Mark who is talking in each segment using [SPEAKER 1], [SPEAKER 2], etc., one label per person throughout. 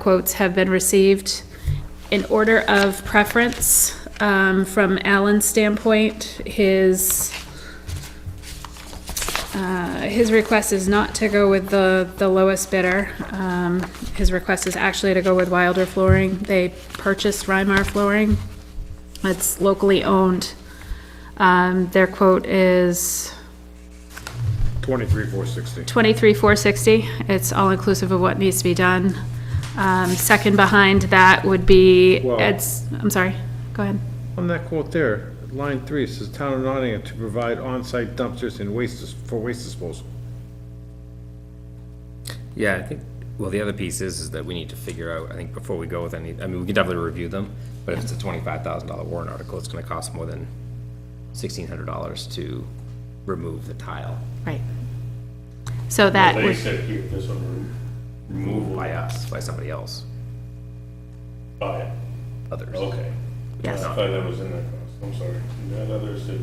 [SPEAKER 1] quotes have been received. In order of preference, um, from Alan's standpoint, his, uh, his request is not to go with the, the lowest bidder. Um, his request is actually to go with Wilder Flooring. They purchased Rymar Flooring. It's locally owned. Um, their quote is
[SPEAKER 2] Twenty-three, four sixty.
[SPEAKER 1] twenty-three, four sixty. It's all inclusive of what needs to be done. Um, second behind that would be
[SPEAKER 2] Well-
[SPEAKER 1] Ed's, I'm sorry, go ahead.
[SPEAKER 2] On that quote there, line three, it says town of Nottingham to provide on-site dumpsters and waste, dis- for waste disposal.
[SPEAKER 3] Yeah, I think, well, the other piece is, is that we need to figure out, I think, before we go with any, I mean, we can definitely review them, but if it's a twenty-five thousand dollar warrant article, it's gonna cost more than sixteen hundred dollars to remove the tile
[SPEAKER 1] Right. So that
[SPEAKER 4] They
[SPEAKER 1] would,
[SPEAKER 4] said here, there's some removal
[SPEAKER 3] by us, by somebody else,
[SPEAKER 4] by it.
[SPEAKER 3] others.
[SPEAKER 4] Okay.
[SPEAKER 1] Yes.
[SPEAKER 4] I thought that was in the, I'm sorry. That other said,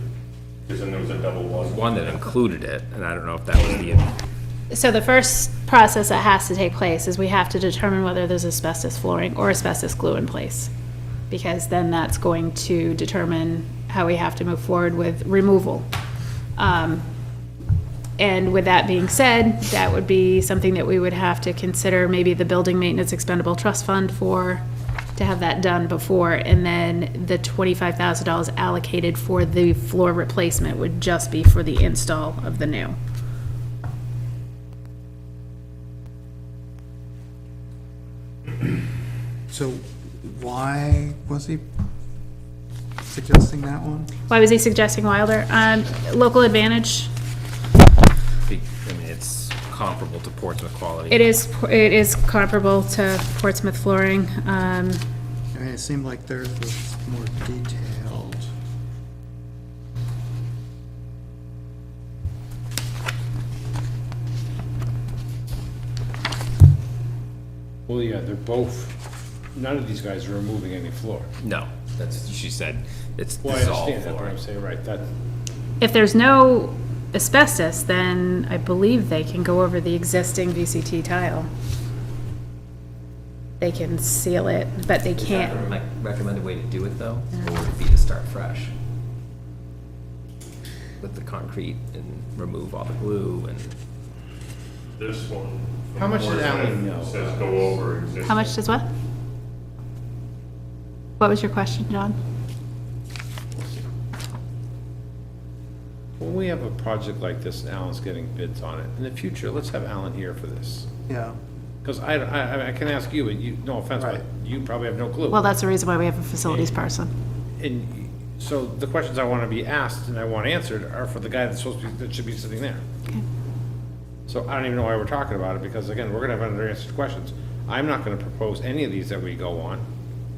[SPEAKER 4] because then there was a double one.
[SPEAKER 3] One that included it, and I don't know if that was the,
[SPEAKER 1] so the first process that has to take place is we have to determine whether there's asbestos flooring or asbestos glue in place. Because then that's going to determine how we have to move forward with removal. Um, And with that being said, that would be something that we would have to consider, maybe the Building Maintenance Expendable Trust Fund for, to have that done before, and then the twenty-five thousand dollars allocated for the floor replacement would just be for the install of the new.
[SPEAKER 5] So why was he suggesting that one?
[SPEAKER 1] Why was he suggesting Wilder? Um, local advantage.
[SPEAKER 3] I mean, it's comparable to Portsmouth quality.
[SPEAKER 1] It is, it is comparable to Portsmouth flooring. Um,
[SPEAKER 5] I mean, it seemed like theirs was more detailed.
[SPEAKER 2] Well, yeah, they're both, none of these guys are removing any floor.
[SPEAKER 3] No, that's, she said, it's,
[SPEAKER 2] Well, I
[SPEAKER 3] this is all
[SPEAKER 2] understand that, but
[SPEAKER 3] flooring.
[SPEAKER 2] I'm saying, right, that,
[SPEAKER 1] if there's no asbestos, then I believe they can go over the existing VCT tile. They can seal it, but they can't.
[SPEAKER 3] My recommended way to do it though, would be to start fresh. With the concrete and remove all the glue and.
[SPEAKER 4] This one. from
[SPEAKER 2] How much did
[SPEAKER 4] Portsmouth
[SPEAKER 2] Alan know?
[SPEAKER 4] Says go over existing.
[SPEAKER 1] How much does what? What was your question, John?
[SPEAKER 2] when we have a project like this and Alan's getting bids on it, in the future, let's have Alan here for this.
[SPEAKER 5] Yeah,
[SPEAKER 2] Because I, I, I can ask you, and you, no offense, but
[SPEAKER 5] Right.
[SPEAKER 2] you probably have no clue.
[SPEAKER 1] Well, that's the reason why we have a facilities person.
[SPEAKER 2] And so the questions I want to be asked and I want answered are for the guy that's supposed to be, that should be sitting there.
[SPEAKER 1] Okay.
[SPEAKER 2] So I don't even know why we're talking about it, because again, we're gonna have unanswered questions. I'm not gonna propose any of these that we go on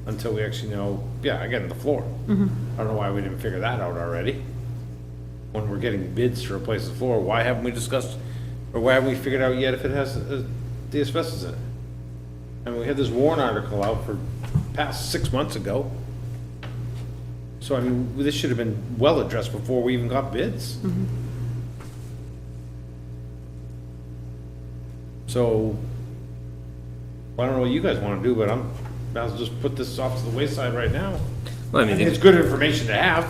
[SPEAKER 2] until we actually know, yeah, again, the floor. I don't know why we didn't figure that out already. When we're getting bids to replace the floor, why haven't we discussed, or why haven't we figured out yet if it has uh, the asbestos in it? I mean, we had this warrant article out for past six months ago. So I mean, this should have been well addressed before we even got bids. So, I don't know what you guys wanna do, but I'm, I'll just put this off to the wayside right now.
[SPEAKER 3] Well, I
[SPEAKER 2] I
[SPEAKER 3] mean,
[SPEAKER 2] mean, it's
[SPEAKER 3] they,
[SPEAKER 2] good information to have.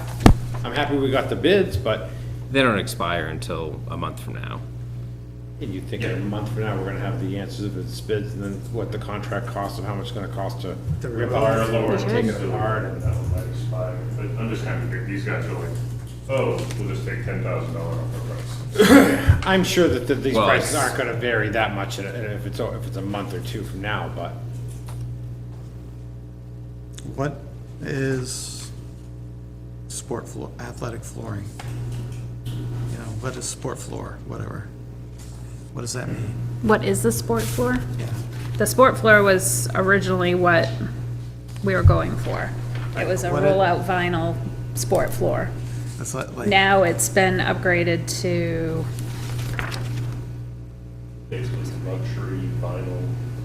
[SPEAKER 2] I'm happy we got the bids, but
[SPEAKER 3] they don't expire until a month from now.
[SPEAKER 2] and you think in a month from now, we're gonna have the answers of its bids and then what the contract costs and how much it's gonna cost to
[SPEAKER 5] To
[SPEAKER 2] rip
[SPEAKER 5] remove.
[SPEAKER 2] apart,
[SPEAKER 4] Our lower
[SPEAKER 2] lower, and take it
[SPEAKER 4] takes the
[SPEAKER 2] apart.
[SPEAKER 4] hard and that one might expire. But I'm just kind of, thinking, these guys are like, oh, we'll just take ten thousand dollar off the price.
[SPEAKER 2] I'm sure that, that these
[SPEAKER 3] Well,
[SPEAKER 2] prices
[SPEAKER 3] it's-
[SPEAKER 2] aren't gonna vary that much in a- in a- if it's, a- if it's a month or two from now, but
[SPEAKER 5] what is sport floor, athletic flooring? You know, what is sport floor, whatever? What does that mean?
[SPEAKER 1] What is the sport floor?
[SPEAKER 5] Yeah,
[SPEAKER 1] The sport floor was originally what we were going for. It was a
[SPEAKER 5] What it-
[SPEAKER 1] rollout vinyl sport floor.
[SPEAKER 5] that's like, like,
[SPEAKER 1] Now it's been upgraded to,
[SPEAKER 4] Basically luxury vinyl,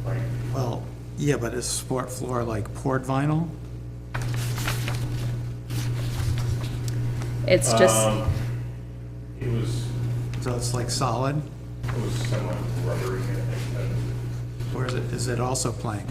[SPEAKER 4] like,
[SPEAKER 5] well, yeah, but is sport floor like poured vinyl?
[SPEAKER 1] it's just,
[SPEAKER 4] um, it was,
[SPEAKER 5] So it's like solid,
[SPEAKER 4] it was semi rubbery. I think,
[SPEAKER 5] or is it, is it also plank?